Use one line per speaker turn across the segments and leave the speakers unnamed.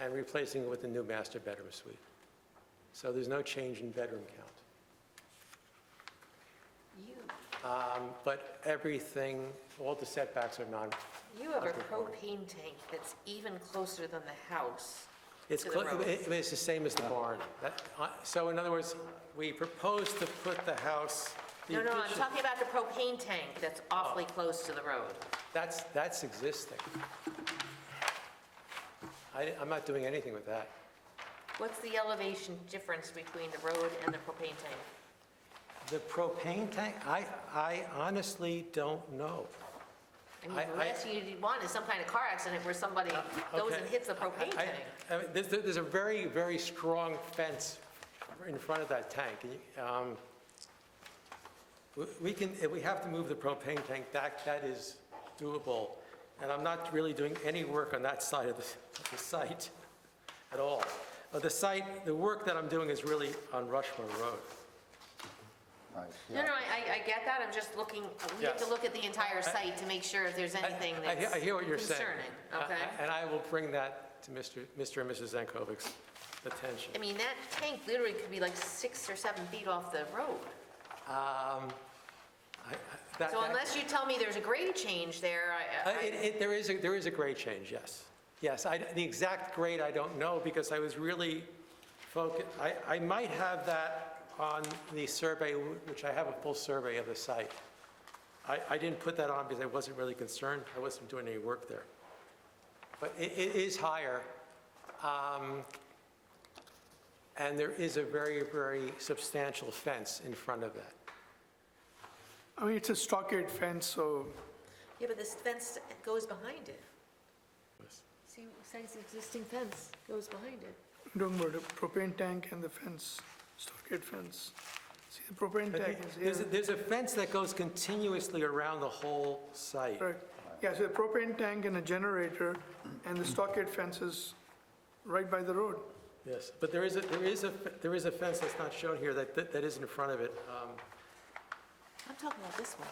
and replacing it with a new master bedroom suite. So there's no change in bedroom count.
You,
Um, But everything, all the setbacks are non,
you have a
Okay.
propane tank that's even closer than the house.
it's,
To the
cl-
road.
it- it's the same as the barn. That- uh, So in other words, we propose to put the house. the
No, no, I'm
addition-
talking about the propane tank that's
Oh.
awfully close to the road.
That's, that's existing. I, I'm not doing anything with that.
What's the elevation difference between the road and the propane tank?
The propane tank, I, I honestly don't know.
I mean,
I-
the
I-
last thing you'd want is some kind of car accident where somebody goes and
Okay.
hits the propane
I-
tank.
I mean, There's, there's a very, very strong fence in front of that tank. Um, we- We can, if we have to move the propane tank back, that is doable. And I'm not really doing any work on that side of the, of the site at all. Uh, The site, the work that I'm doing is really on Rushmore Road.
Right,
No,
yeah.
no, I, I- I get that, I'm just looking, we have to
Yes.
look at the entire site to make sure if there's
I-
anything
I hear-
that's
I hear what you're saying.
concerning,
I- I-
okay?
And I will bring that to Mr. Mr. and Mrs. Zankovic's attention.
I mean, that tank literally could be like six or seven feet off the road.
Um, I- I- that-
So
that-
unless you tell me there's a grade change there,
Uh,
I- I,
it- it- There is, a- there is a grade change, yes. Yes, I- the exact grade, I don't know, because I was really focused, I I might have that on the survey, wh- which I have a full survey of the site. I I didn't put that on because I wasn't really concerned, I wasn't doing any work there. But it it is higher, um, and there is a very, very substantial fence in front of that.
I mean, it's a stockade fence, so
yeah, but this fence goes behind it.
Yes.
See, says existing fence goes behind it.
don't worry, the propane tank and the fence, stockade fence. See, the propane tank is
There's a-
here,
There's a fence that goes continuously around the whole site.
correct? Yeah, so the propane tank and a generator, and the stockade fence is right by the road.
Yes, but there is, a there is a, there is a fence that's not shown here that, that that is in front of it. Um,
I'm talking about this one.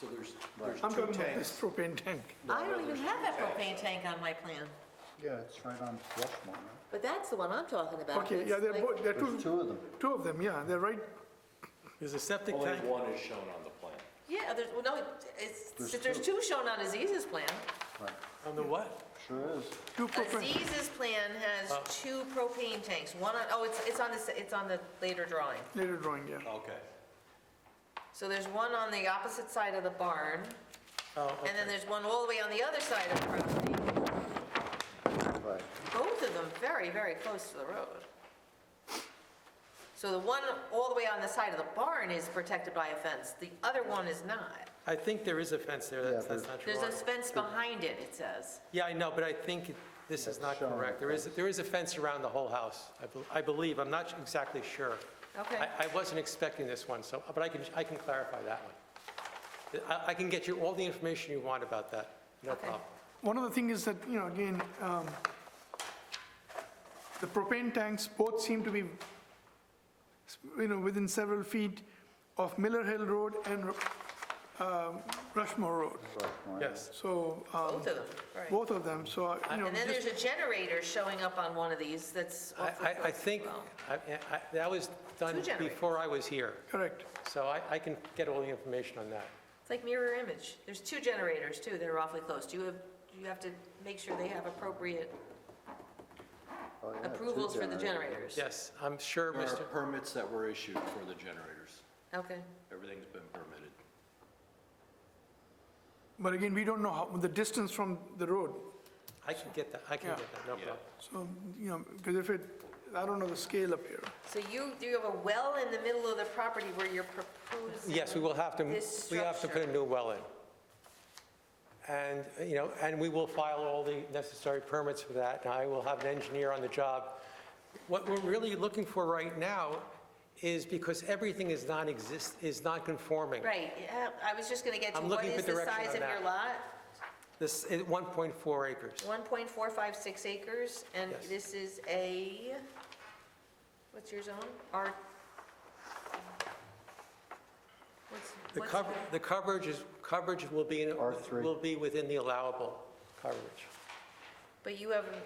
So there's, there's
I'm
two
talking about this
tanks.
propane tank.
I don't even have that propane tank on my plan,
Yeah, it's right on Rushmore. right?
but that's the one I'm talking about.
Okay,
It's
yeah, they're
like-
both, they're
There's
two,
two of them.
two of them, yeah, they're right,
There's a septic
Only
tank.
one is shown on the plan.
Yeah, there's, well, no, it- it's,
There's
there's two shown on Aziz's plan.
Right,
On the what?
sure is.
two propane. Oh.
Aziz's plan has two propane tanks, one on, oh, it's, it's on this, it's on the later drawing.
Later drawing, yeah.
Okay.
So there's one on the opposite side of the barn,
Oh,
and then there's one all the way on the other side of the property.
Right,
Both of them very, very close to the road. So the one all the way on the side of the barn is protected by a fence, the other one is not.
I think there is a fence there, that's, that's not
There's a
drawn.
fence behind it, it says.
Yeah, I know, but I think it- this is
That's
not
shown on the
correct. There is, there is a fence around the whole house, I bel- I believe, I'm not exactly sure.
Okay.
I, I wasn't expecting this one, so, but I can, I can clarify that one. I, I can get you all the information you want about that, no
Okay.
problem.
One of the things is that, you know, again, um, the propane tanks both seem to be, you know, within several feet of Miller Hill Road and um, Rushmore Road.
Rushmore.
Yes.
So, um,
Both of them, right.
both of them, so, uh, you know,
And then there's
just-
a generator showing up on one of these that's
I,
off the
I- I
road as
think,
well.
I- I- that was done
Two generators.
before I was here,
correct.
so I, I can get all the information on that.
It's like mirror image. There's two generators too that are awfully close. Do you have, you have to make sure they have appropriate
Oh, yeah, two
approvals for the generators?
generators.
Yes, I'm sure,
There are
Mr.,
permits that were issued for the generators.
Okay.
Everything's been permitted.
But again, we don't know how, the distance from the road.
I can get that, I can
Yeah.
get that, no problem.
So, you know, because if it, I don't know the scale up here.
So you, do you have a well in the middle of the property where you're proposing?
Yes, we will have to,
This
we have to put a
structure.
new well in. And, you know, and we will file all the necessary permits for that, and I will have an engineer on the job. What we're really looking for right now is because everything is non-exist, is non-conforming.
Right, yeah, I was just gonna get to,
I'm
what
looking
is
for
the
direction
size
on
of your
that.
lot?
This is 1.4 acres.
1.456 acres, and
Yes.
this is a, what's your zone? R? What's-
The
what's-
cover, the coverage is, coverage will be, in-
R3.
will be within the allowable coverage.
But you have